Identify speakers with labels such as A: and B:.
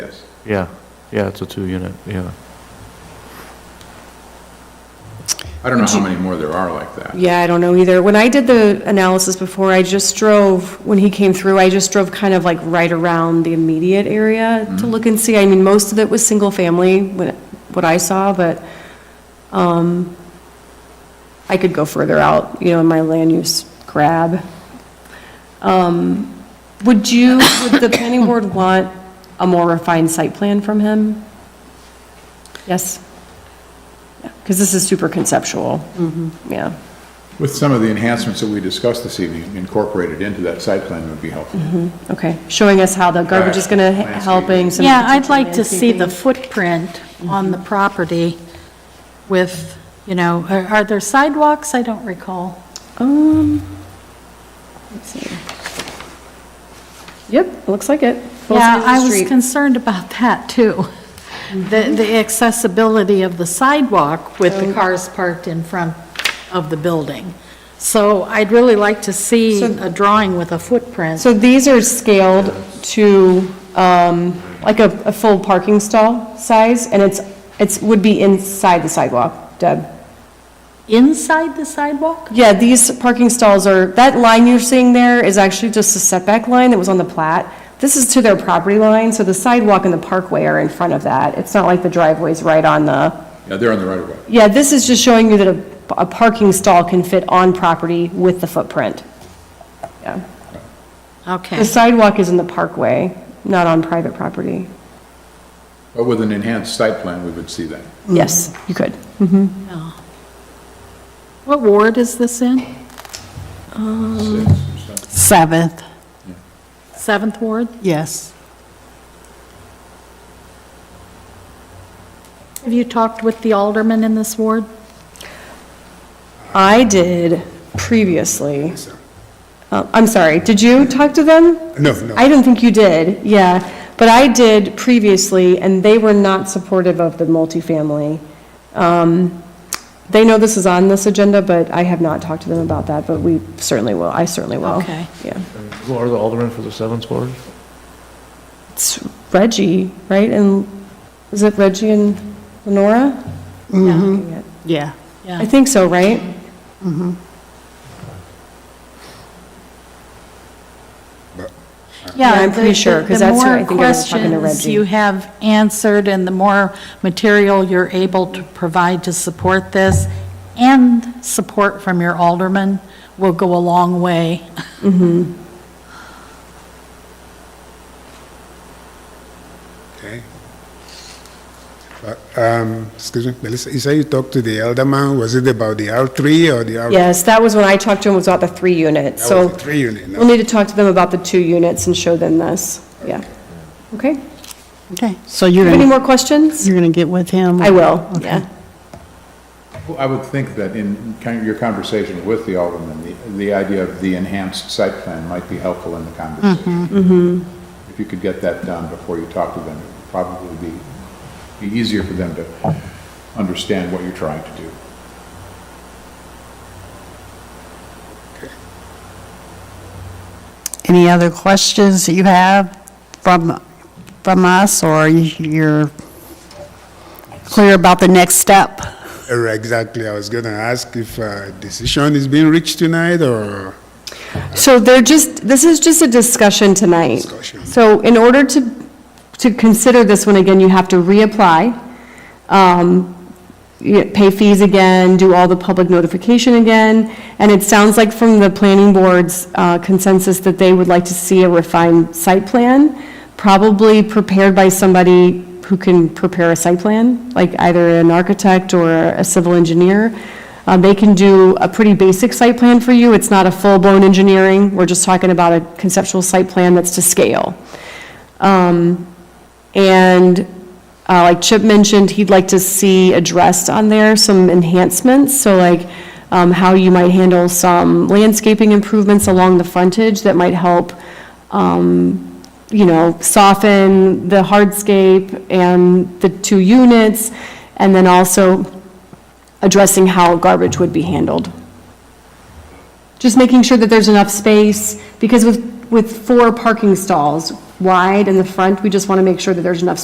A: yes.
B: Yeah, yeah, it's a two-unit, yeah.
A: I don't know how many more there are like that.
C: Yeah, I don't know either. When I did the analysis before, I just drove, when he came through, I just drove kind of like right around the immediate area to look and see. I mean, most of it was single-family, what what I saw, but um, I could go further out, you know, in my land use grab. Um, Would you, would the planning board want a more refined site plan from him? Yes? Because this is super conceptual. Mm-hmm. Yeah.
A: With some of the enhancements that we discussed this evening incorporated into that site plan would be helpful.
C: Okay, showing us how the garbage is going to, helping some.
D: Yeah, I'd like to see the footprint on the
C: Mm-hmm.
D: property with, you know, are are there sidewalks? I don't recall.
C: Um, let's see. Yep, looks like it. Both
D: Yeah,
C: sides of the
D: I was
C: street. Mm-hmm.
D: concerned about that, too. The the accessibility of the sidewalk with the cars parked in front of the building. So I'd really like to see
C: So-
D: a drawing with a footprint.
C: So these are scaled to, um, like a, a full parking stall size, and it's, it's, would be inside the sidewalk, Deb.
D: Inside the sidewalk?
C: Yeah, these parking stalls are, that line you're seeing there is actually just a setback line that was on the plat. This is to their property line, so the sidewalk and the parkway are in front of that. It's not like the driveway's right on the,
A: Yeah, they're on the right of way.
C: yeah, this is just showing you that a, a parking stall can fit on property with the footprint. Yeah. The
D: Okay,
C: sidewalk is in the parkway, not on private property.
A: But with an enhanced site plan, we would see that.
C: Yes, you could.
D: yeah. What ward is this in?
A: Six or something.
E: Seventh,
D: Seventh ward?
E: yes.
D: Have you talked with the alderman in this ward?
C: I did previously. Uh, I'm sorry, did you talk to them?
F: No, no.
C: I don't think you did, yeah. But I did previously, and they were not supportive of the multifamily. Um, They know this is on this agenda, but I have not talked to them about that, but we certainly will, I certainly will.
D: Okay.
C: Yeah.
B: Who are the aldermen for the seventh ward?
C: It's Reggie, right? And is it Reggie and Lenora? Yeah.
E: Mm-hmm. Yeah.
C: I
D: Yeah,
C: think so, right? Yeah, I'm pretty
D: the-
C: sure,
D: the-
C: 'cause that's where I think I was talking to
D: The more questions
C: Reggie.
D: you have answered and the more material you're able to provide to support this and support from your alderman will go a long way.
F: Okay. But, um, excuse me, Melissa, you say you talked to the elderman, was it about the R3 or the R?
C: Yes, that was when I talked to him, was about the three units,
F: That
C: so.
F: was the three unit, no?
C: We'll need to talk to them about the two units and show them this, yeah. Okay,
E: Okay, so you're
C: any
E: going,
C: more questions?
E: you're going to get with him?
C: I will, yeah.
A: Well, I would think that in kind of your conversation with the alderman, the, the idea of the enhanced site plan might be helpful in the conversation. If you could get that done before you talk to them, it would probably be, be easier for them to understand what you're trying to do.
E: Any other questions that you have from, from us, or you're clear about the next step?
F: Or Exactly, I was gonna ask if uh, a decision is being reached tonight or,
C: So they're just, this is just a discussion tonight.
F: Discussion.
C: So in order to, to consider this one again, you have to reapply, um, you pay fees again, do all the public notification again, and it sounds like from the planning board's uh, consensus that they would like to see a refined site plan, probably prepared by somebody who can prepare a site plan, like either an architect or a civil engineer. Uh, They can do a pretty basic site plan for you, it's not a full-blown engineering, we're just talking about a conceptual site plan that's to scale. Um, And uh, like Chip mentioned, he'd like to see addressed on there some enhancements, so like um, how you might handle some landscaping improvements along the frontage that might help, um, you know, soften the hardscape and the two units, and then also addressing how garbage would be handled just making sure that there's enough space, because with, with four parking stalls wide in the front, we just want to make sure that there's enough